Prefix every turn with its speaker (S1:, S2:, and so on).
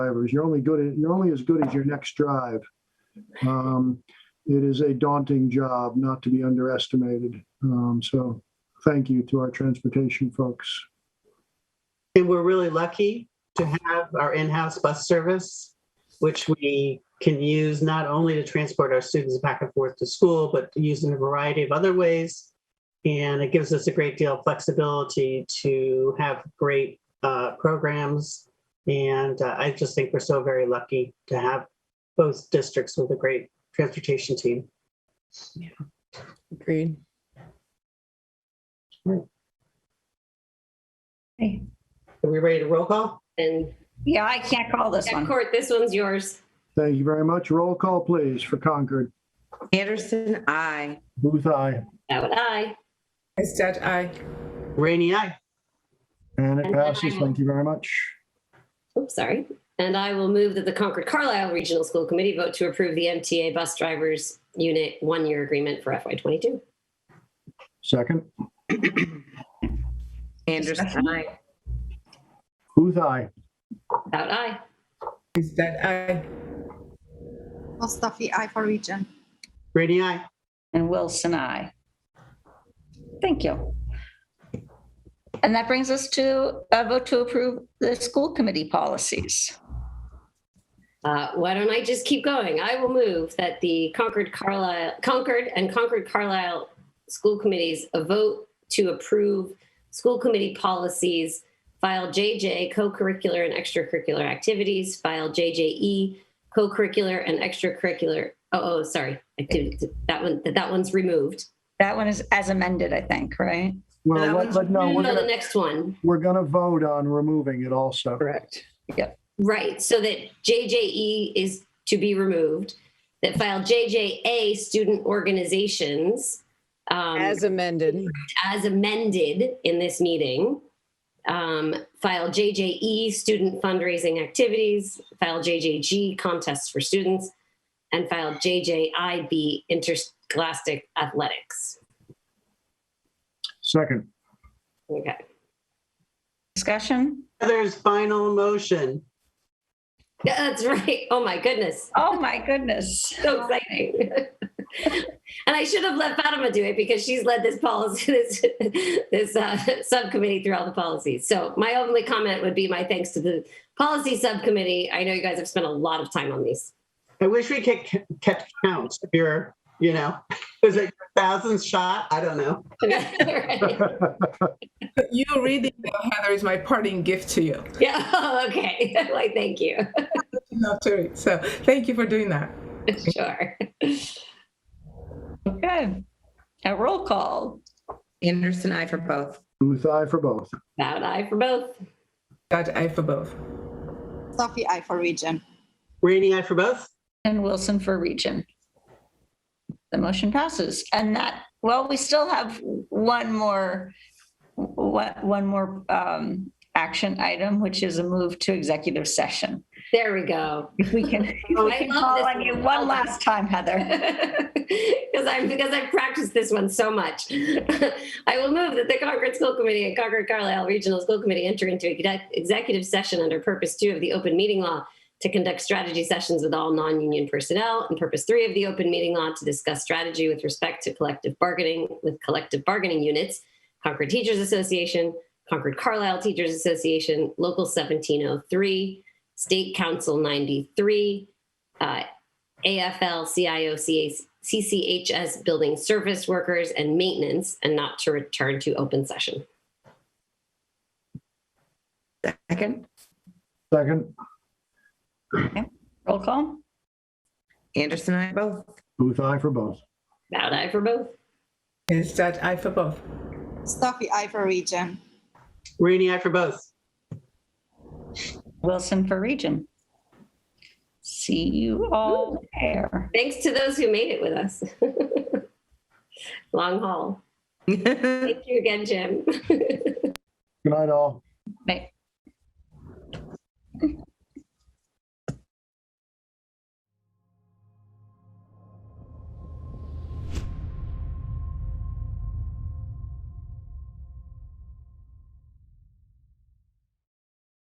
S1: drivers. You're only good, at- you're only as good as your next drive. Um, It is a daunting job, not to be underestimated. Um, So thank you to our transportation folks.
S2: And we're really lucky to have our in-house bus service, which we can use not only to transport our students back and forth to school, but to use in a variety of other ways. And it gives us a great deal of flexibility to have great uh, programs. And uh, I just think we're so very lucky to have both districts with a great transportation team.
S3: Agreed.
S2: Are we ready to roll call?
S4: And
S5: Yeah, I can't call this
S4: yeah,
S5: one.
S4: Court, this one's yours.
S1: Thank you very much. Roll call, please, for Concord.
S3: Anderson, I.
S1: Booth, aye.
S4: That would I.
S3: Hystad, I.
S2: Rainy, aye.
S1: And it
S4: And
S1: passes.
S4: aye.
S1: Thank you very much.
S4: Oops, sorry. And I will move that the Concord Carlisle Regional School Committee vote to approve the MTA Bus Drivers Unit one-year agreement for FY22.
S1: Second,
S3: Anderson, I.
S1: Booth, aye.
S4: That would I.
S3: Hystad, I.
S6: Mustafi, I for region.
S2: Rainy, aye.
S5: And Wilson, I. Thank you. And that brings us to a vote to approve the school committee policies.
S4: Uh, why don't I just keep going? I will move that the Concord Carlisle, Concord and Concord Carlisle school committees vote to approve school committee policies, file JJ, co-curricular and extracurricular activities, file JJE, co-curricular and extracurricular, oh, oh, sorry, activities. That one, that that one's removed.
S5: That one is as amended, I think, right?
S1: Well, let- let- no, we're
S4: No, the
S1: gonna,
S4: next one.
S1: we're gonna vote on removing it also.
S3: Correct.
S4: Right, so that JJE is to be removed, that file JJA student organizations um,
S3: As amended.
S4: as amended in this meeting. Um, file JJE student fundraising activities, file JJG contests for students, and file JJIB interscholastic athletics.
S1: Second,
S4: Okay,
S5: Discussion?
S2: Heather's final motion.
S4: Yeah, that's right. Oh my goodness.
S5: Oh, my goodness.
S4: so exciting. and I should have let Fatima do it because she's led this policy, this, this uh, subcommittee through all the policies. So my only comment would be my thanks to the policy subcommittee. I know you guys have spent a lot of time on these.
S2: I wish we could ke- kept count. If you're, you know, is it your thousandth shot? I don't know.
S4: Right.
S7: You reading them, Heather, is my parting gift to you.
S4: Yeah. Oh, okay. Why? Thank you.
S7: Not to it. So thank you for doing that.
S4: Sure.
S5: Okay. A roll call.
S3: Anderson, I for both.
S1: Booth, aye for both.
S4: Bow and I for both.
S7: That I for both.
S6: Mustafi, I for region.
S2: Rainy eye for both.
S5: And Wilson for region. The motion passes. And that, well, we still have one more, one one more um, action item, which is a move to executive session.
S4: There we go.
S5: If we can, if we
S4: I
S5: can
S4: love
S5: call
S4: this
S5: on you
S4: one.
S5: one last time, Heather.
S4: because I'm because I've practiced this one so much. I will move that the Concord School Committee and Concord Carlisle Regional School Committee enter into exec- executive session under Purpose Two of the Open Meeting Law to conduct strategy sessions with all non-union personnel, and Purpose Three of the Open Meeting Law to discuss strategy with respect to collective bargaining with collective bargaining units, Concord Teachers Association, Concord Carlisle Teachers Association, Local 1703, State Council 93. Uh, AFL CIO CCHS building service workers and maintenance and not to return to open session.
S3: Second.
S1: Second,
S5: Roll call.
S3: Anderson, I both.
S1: Booth, aye for both.
S4: Bowed eye for both.
S7: Is that I for both?
S6: Mustafi, I for region.
S2: Rainy eye for both.
S5: Wilson for region. See you all there.
S4: Thanks to those who made it with us. Long haul. Thank you again, Jim.
S1: Good night, all.
S5: Bye.